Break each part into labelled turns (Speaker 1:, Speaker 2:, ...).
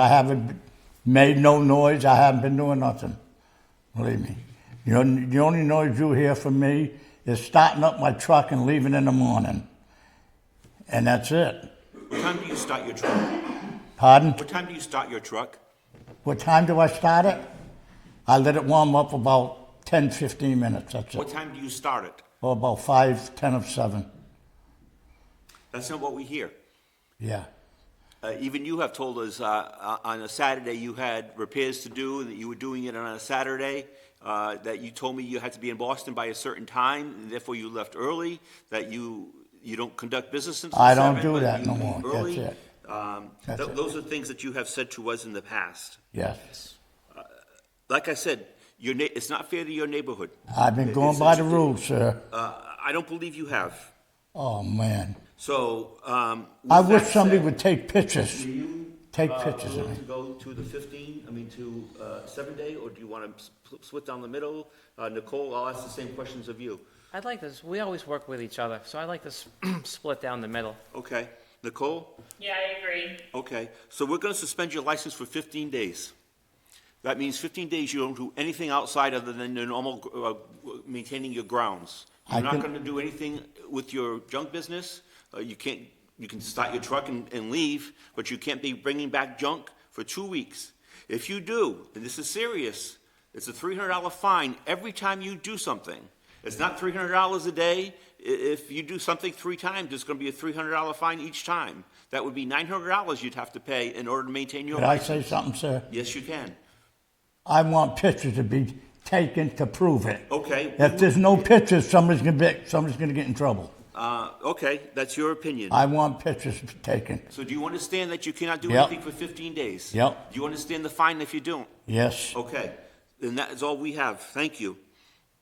Speaker 1: I haven't made no noise. I haven't been doing nothing. Believe me. You know, the only noise you hear from me is starting up my truck and leaving in the morning. And that's it.
Speaker 2: What time do you start your truck?
Speaker 1: Pardon?
Speaker 2: What time do you start your truck?
Speaker 1: What time do I start it? I let it warm up about 10, 15 minutes. That's
Speaker 2: What
Speaker 1: it.
Speaker 2: time do you start it?
Speaker 1: Or about 5, 10 of 7.
Speaker 2: That's not what we hear.
Speaker 1: Yeah.
Speaker 2: Uh, even you have told us uh, uh, on a Saturday you had repairs to do, and that you were doing it on a Saturday, uh, that you told me you had to be in Boston by a certain time, and therefore you left early, that you, you don't conduct business until
Speaker 1: I don't
Speaker 2: seven,
Speaker 1: do
Speaker 2: but
Speaker 1: that
Speaker 2: you
Speaker 1: no
Speaker 2: leave
Speaker 1: more. That's
Speaker 2: early.
Speaker 1: it.
Speaker 2: Um,
Speaker 1: That's
Speaker 2: th-
Speaker 1: it.
Speaker 2: Those are things that you have said to us in the past.
Speaker 1: Yes.
Speaker 2: Like I said, your na- it's not fair to your neighborhood.
Speaker 1: I've been
Speaker 2: It-
Speaker 1: going
Speaker 2: it's-
Speaker 1: by the
Speaker 2: it's-
Speaker 1: rules, sir.
Speaker 2: Uh, I don't believe you have.
Speaker 1: Oh, man.
Speaker 2: So, um. with
Speaker 1: I wish
Speaker 2: that
Speaker 1: somebody
Speaker 2: said,
Speaker 1: would take pictures.
Speaker 2: Do you?
Speaker 1: take
Speaker 2: uh,
Speaker 1: pictures of
Speaker 2: willing
Speaker 1: me.
Speaker 2: To go to the fifteen, I mean, to, uh, seven day, or do you wanna spl- split down the middle? Uh, Nicole, I'll ask the same questions of you.
Speaker 3: I'd like this, we always work with each other, so I'd like this split down the middle.
Speaker 2: Okay, Nicole?
Speaker 4: Yeah, I agree.
Speaker 2: Okay, so we're gonna suspend your license for fifteen days. That means fifteen days you don't do anything outside other than your normal, uh, maintaining your grounds.
Speaker 1: I
Speaker 2: You're not
Speaker 1: can-
Speaker 2: gonna do anything with your junk business, uh, you can't, you can start your truck and, and leave, but you can't be bringing back junk for two weeks. If you do, and this is serious, it's a three hundred dollar fine every time you do something. It's not three hundred dollars a day, I- if you do something three times, it's gonna be a three hundred dollar fine each time. That would be nine hundred dollars you'd have to pay in order to maintain your
Speaker 1: Did I
Speaker 2: license.
Speaker 1: say something, sir?
Speaker 2: Yes, you can.
Speaker 1: I want pictures to be taken to prove it.
Speaker 2: Okay.
Speaker 1: If there's no pictures, somebody's gonna be, somebody's gonna get in trouble.
Speaker 2: Uh, okay, that's your opinion.
Speaker 1: I want pictures taken.
Speaker 2: So do you understand that you cannot do
Speaker 1: Yep.
Speaker 2: anything for fifteen days?
Speaker 1: Yep.
Speaker 2: Do you understand the fine if you don't?
Speaker 1: Yes,
Speaker 2: Okay, then that is all we have. Thank you.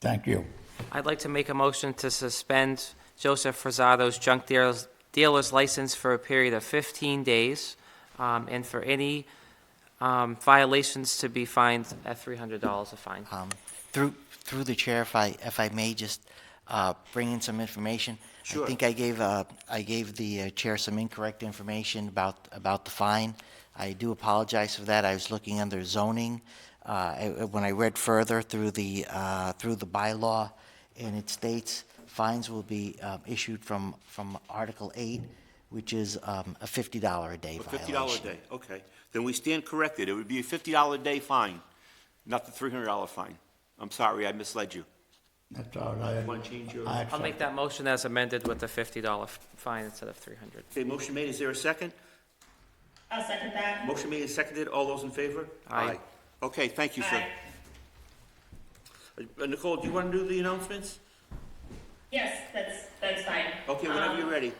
Speaker 1: thank you.
Speaker 3: I'd like to make a motion to suspend Joseph Frasado's junk dealers- dealer's license for a period of 15 days, um, and for any um, violations to be fined at $300 a fine.
Speaker 5: Um, Through, through the chair, if I, if I may just uh, bring in some information.
Speaker 2: Sure.
Speaker 5: I think I gave, uh, I gave the uh, chair some incorrect information about, about the fine. I do apologize for that. I was looking under zoning. uh, I- When I read further through the, uh, through the bylaw, and it states fines will be um, issued from, from Article 8, which is um, a $50 a day
Speaker 2: A
Speaker 5: violation.
Speaker 2: fifty dollar day, okay. Then we stand corrected. It would be a fifty dollar day fine, not the three hundred dollar fine. I'm sorry, I misled you.
Speaker 1: That's all right.
Speaker 2: Want to change your?
Speaker 1: I
Speaker 3: I'll make
Speaker 1: accept-
Speaker 3: that motion as amended with the $50 f- fine instead of 300.
Speaker 2: Okay, motion made. Is there a second?
Speaker 4: I'll second that.
Speaker 2: Motion made and seconded. All those in favor?
Speaker 3: Aye.
Speaker 2: Okay, thank you, sir.
Speaker 4: Aye.
Speaker 2: Uh, Nicole, do you want to do the announcements?
Speaker 4: Yes, that's, that's fine.
Speaker 2: Okay, whenever
Speaker 4: Um,
Speaker 2: you're ready.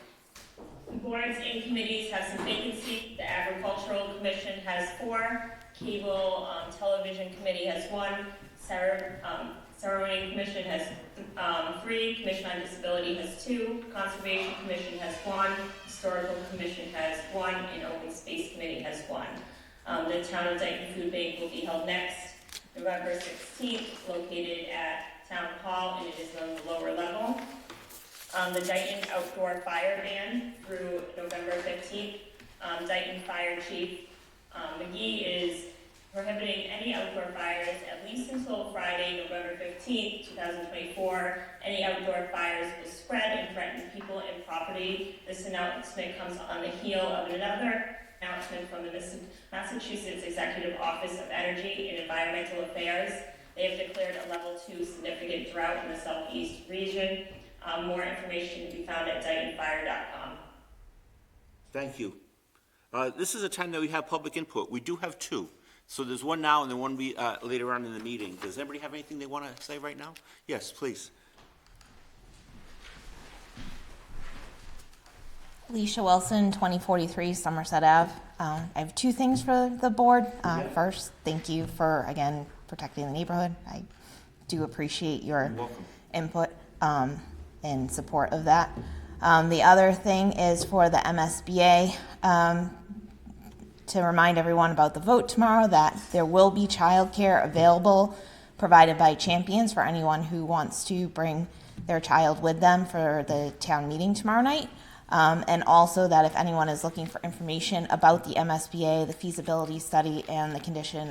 Speaker 4: Boards and committees have some vacancy. The Agricultural Commission has four. Cable um, Television Committee has one. Cer- um, Ceremony Commission has um, three. Commission on Disability has two. Conservation Commission has one. Historical Commission has one. And Open Space Committee has one. Um, The Town of Dayton Food Bank will be held next, November 16th, located at Town Hall, and it is on the lower level um, the Dayton Outdoor Fire Ban through November fifteenth. Um, Dayton Fire Chief, um, McGee is prohibiting any outdoor fires at least until Friday, November fifteenth, two thousand twenty-four. Any outdoor fires will spread and threaten people and property. This announcement comes on the heel of another announcement from the Miss- Massachusetts Executive Office of Energy and Environmental Affairs. They have declared a level two significant drought in the southeast region. Um, more information can be found at DaytonFire.com.
Speaker 2: Thank you. Uh, This is a time that we have public input. We do have two. So there's one now and then one we, uh, later on in the meeting. Does anybody have anything they want to say right now? Yes, please.
Speaker 6: Leisha Wilson, 2043 Somerset Ave. Um, I have two things for the board. Uh, First, thank you for, again, protecting the neighborhood. I do appreciate your input um, in support of that. Um, The other thing is for the MSBA, um, to remind everyone about the vote tomorrow, that there will be childcare available provided by Champions for anyone who wants to bring their child with them for the town meeting tomorrow night. Um, and also that if anyone is looking for information about the MSBA, the feasibility study, and the condition